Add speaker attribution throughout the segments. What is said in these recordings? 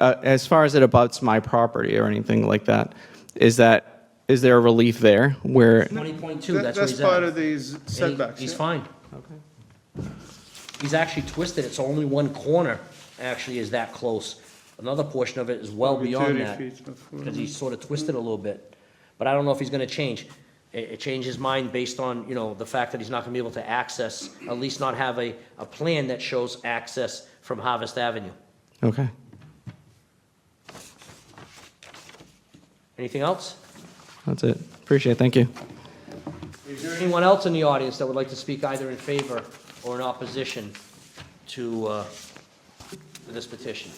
Speaker 1: uh, as far as it abuts my property or anything like that, is that, is there a relief there where,
Speaker 2: Twenty point two,
Speaker 3: That-
Speaker 2: that's what he's at.
Speaker 3: part of these
Speaker 2: And he-
Speaker 3: setbacks.
Speaker 2: He's
Speaker 3: yeah.
Speaker 2: fine. He's actually twisted, it's only one corner actually is that close. Another portion of it is well
Speaker 3: Maybe
Speaker 2: beyond
Speaker 3: 30
Speaker 2: that,
Speaker 3: feet before.
Speaker 2: because he's sort of twisted a little bit. But I don't know if he's gonna change. It, it changed his mind based on, you know, the fact that he's not gonna be able to access, at least not have a, a plan that shows access from Harvest Avenue.
Speaker 1: okay.
Speaker 2: Anything else?
Speaker 1: That's it. Appreciate it. Thank you.
Speaker 2: Is there anyone else in the audience that would like to speak either in favor or in opposition to, uh, to this petition?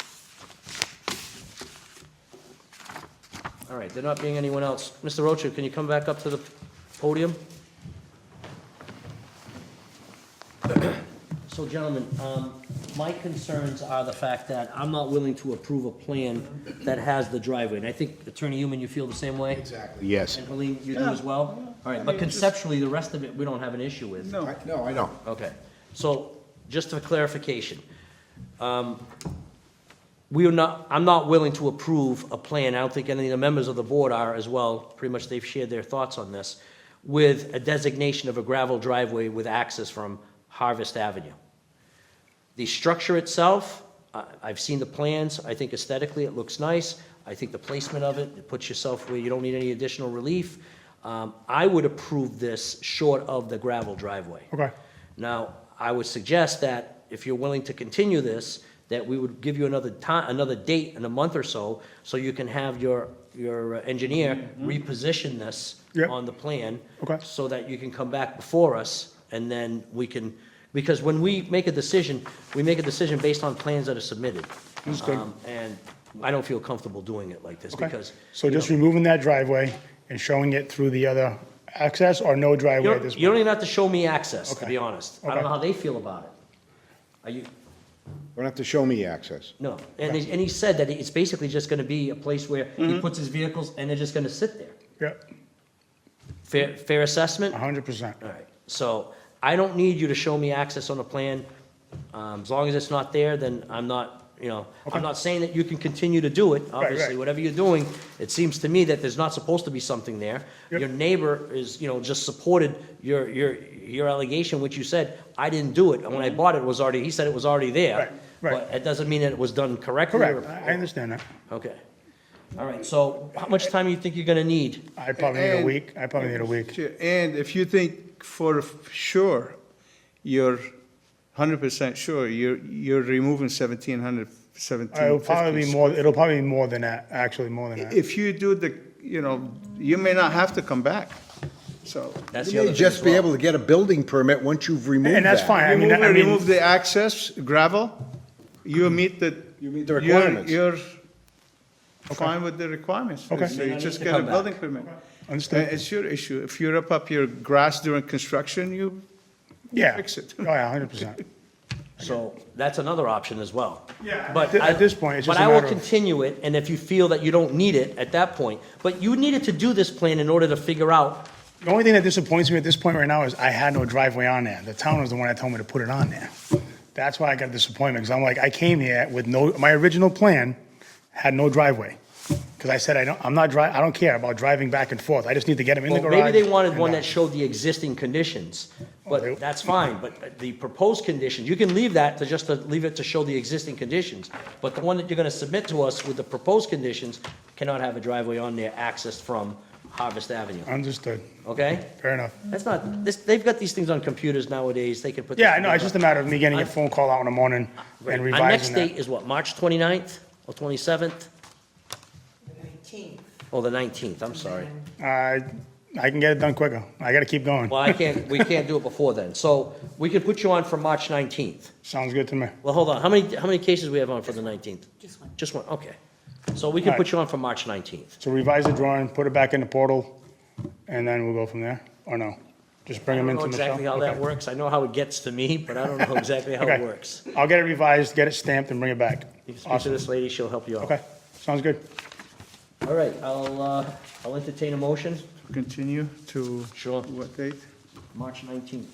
Speaker 2: All right, there not being anyone else. Mr. Rocha, can you come back up to the podium? So gentlemen, um, my concerns are the fact that I'm not willing to approve a plan that has the driveway. And I think Attorney Human, you feel the same way?
Speaker 4: Exactly, yes.
Speaker 2: And Helene, you do as well? All right,
Speaker 3: I
Speaker 2: but
Speaker 3: mean, just-
Speaker 2: conceptually, the rest of it, we don't have an issue with?
Speaker 3: No,
Speaker 4: I- No, I know.
Speaker 2: Okay, so, just for clarification, um, we are not, I'm not willing to approve a plan, I don't think any of the members of the board are as well, pretty much they've shared their thoughts on this, with a designation of a gravel driveway with access from Harvest Avenue. The structure itself, I- I've seen the plans, I think aesthetically it looks nice. I think the placement of it, it puts yourself where you don't need any additional relief. Um, I would approve this short of the gravel driveway. Okay. Now, I would suggest that if you're willing to continue this, that we would give you another time, another date in a month or so, so you can have your, your engineer reposition this
Speaker 5: Yep.
Speaker 2: on the plan.
Speaker 5: Okay.
Speaker 2: So that you can come back before us, and then we can, because when we make a decision, we make a decision based on plans that are submitted. Um, And I don't feel comfortable doing it like this,
Speaker 5: Okay.
Speaker 2: because.
Speaker 5: So
Speaker 2: you
Speaker 5: just
Speaker 2: know,
Speaker 5: removing that driveway and showing it through the other access or no
Speaker 2: You
Speaker 5: driveway at this
Speaker 2: don't, you don't
Speaker 5: point?
Speaker 2: even have to show me access, to
Speaker 5: Okay.
Speaker 2: be honest. I don't
Speaker 5: Okay.
Speaker 2: know how they feel about it. Are you,
Speaker 4: Don't have to show me access.
Speaker 2: no, and he, and he said that it's basically just gonna be a place where he
Speaker 5: Mm-hmm.
Speaker 2: puts his vehicles, and they're just gonna sit there.
Speaker 5: Yep,
Speaker 2: Fair, fair assessment?
Speaker 5: hundred percent.
Speaker 2: All right, so I don't need you to show me access on the plan. Um, As long as it's not there, then I'm not, you know, I'm not saying that you can continue to do it, obviously,
Speaker 5: right.
Speaker 2: whatever you're doing. It seems to me that there's not supposed to be something there.
Speaker 5: Yep.
Speaker 2: Your neighbor is, you know, just supported your, your, your allegation, which you said, I didn't do it. And when I bought it, it was already, he said it was already there.
Speaker 5: Mm-hmm. Right, right.
Speaker 2: But it doesn't mean that it was done correctly. or-
Speaker 5: Correct, I I understand that.
Speaker 2: Okay. All right, so how much time do you think you're gonna need?
Speaker 5: I probably need a
Speaker 3: And-
Speaker 5: week, I probably need a week.
Speaker 3: Sure, And if you think for f- sure, you're hundred percent sure, you're, you're removing seventeen hundred, seventeen
Speaker 5: It'll probably be
Speaker 3: fifty.
Speaker 5: more, it'll probably be more than that, actually, more than that.
Speaker 3: If you do the, you know, you may not have to come back, so.
Speaker 2: That's the
Speaker 4: You
Speaker 2: other thing
Speaker 4: may
Speaker 2: as
Speaker 4: just be
Speaker 2: well.
Speaker 4: able to get a building permit once you've removed that.
Speaker 5: And that's fine, I mean,
Speaker 3: Remove,
Speaker 5: I
Speaker 3: remove
Speaker 5: mean,
Speaker 3: the access, gravel, you meet the.
Speaker 4: You meet the
Speaker 3: you're-
Speaker 4: requirements.
Speaker 3: You're fine with the requirements,
Speaker 5: Okay.
Speaker 3: so
Speaker 2: You
Speaker 3: you
Speaker 2: don't
Speaker 3: just
Speaker 2: need to
Speaker 3: get a
Speaker 2: come back.
Speaker 3: building permit.
Speaker 5: understood,
Speaker 3: Uh, It's your issue, if you rip up your grass during construction, you
Speaker 5: yeah.
Speaker 3: fix it.
Speaker 5: Oh, yeah, hundred percent.
Speaker 2: So that's another option as well.
Speaker 5: Yeah,
Speaker 2: But
Speaker 5: at thi-
Speaker 2: I-
Speaker 5: at this point, it's just a
Speaker 2: But I will
Speaker 5: matter of-
Speaker 2: continue it, and if you feel that you don't need it at that point, but you needed to do this plan in order to figure out,
Speaker 5: The only thing that disappoints me at this point right now is I had no driveway on there. The town was the one that told me to put it on there. That's why I got disappointment, because I'm like, I came here with no, my original plan had no driveway. Because I said, I don't, I'm not dri, I don't care about driving back and forth. I just need to get them in the
Speaker 2: well,
Speaker 5: garage.
Speaker 2: maybe they wanted
Speaker 5: and
Speaker 2: one
Speaker 5: out.
Speaker 2: that showed the existing conditions,
Speaker 5: they-
Speaker 2: but that's fine, but the proposed conditions, you can leave that to just to leave it to show the existing conditions, but the one that you're gonna submit to us with the proposed conditions cannot have a driveway on there accessed from Harvest Avenue,
Speaker 5: Understood.
Speaker 2: okay?
Speaker 5: Fair enough.
Speaker 2: That's not, this, they've got these things on computers nowadays, they can put. this
Speaker 5: Yeah, I know, it's
Speaker 2: together.
Speaker 5: just a matter of me getting a
Speaker 2: I'm-
Speaker 5: phone call out in the morning
Speaker 2: Right.
Speaker 5: and
Speaker 2: Our next
Speaker 5: revising
Speaker 2: date
Speaker 5: that.
Speaker 2: is what, March 29th or 27th?
Speaker 6: Nineteenth.
Speaker 2: Oh, the 19th, I'm sorry.
Speaker 5: Uh, I can get it done quicker. I gotta keep going.
Speaker 2: Well, I can't, we can't do it before then. So we could put you on for March 19th.
Speaker 5: Sounds good to me.
Speaker 2: Well, hold on, how many, how many cases we have on for the 19th?
Speaker 6: Just one.
Speaker 2: Just one, okay. So we can
Speaker 5: All
Speaker 2: put
Speaker 5: right.
Speaker 2: you on for March 19th.
Speaker 5: So revise the drawing, put it back in the portal, and then we'll go from there, or no? Just bring
Speaker 2: I
Speaker 5: them
Speaker 2: don't know
Speaker 5: into Michelle?
Speaker 2: exactly how that
Speaker 5: Okay.
Speaker 2: works. I know how it gets to me, but I don't know exactly how it
Speaker 5: Okay.
Speaker 2: works.
Speaker 5: I'll get it revised, get it stamped, and bring it back.
Speaker 2: You can speak to
Speaker 5: Awesome.
Speaker 2: this lady, she'll help you out.
Speaker 5: Okay, sounds good.
Speaker 2: All right, I'll, uh, I'll entertain a motion,
Speaker 3: Continue to.
Speaker 2: Sure.
Speaker 3: What date?
Speaker 2: March 19th.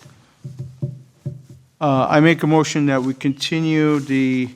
Speaker 3: Uh, I make a motion that we continue the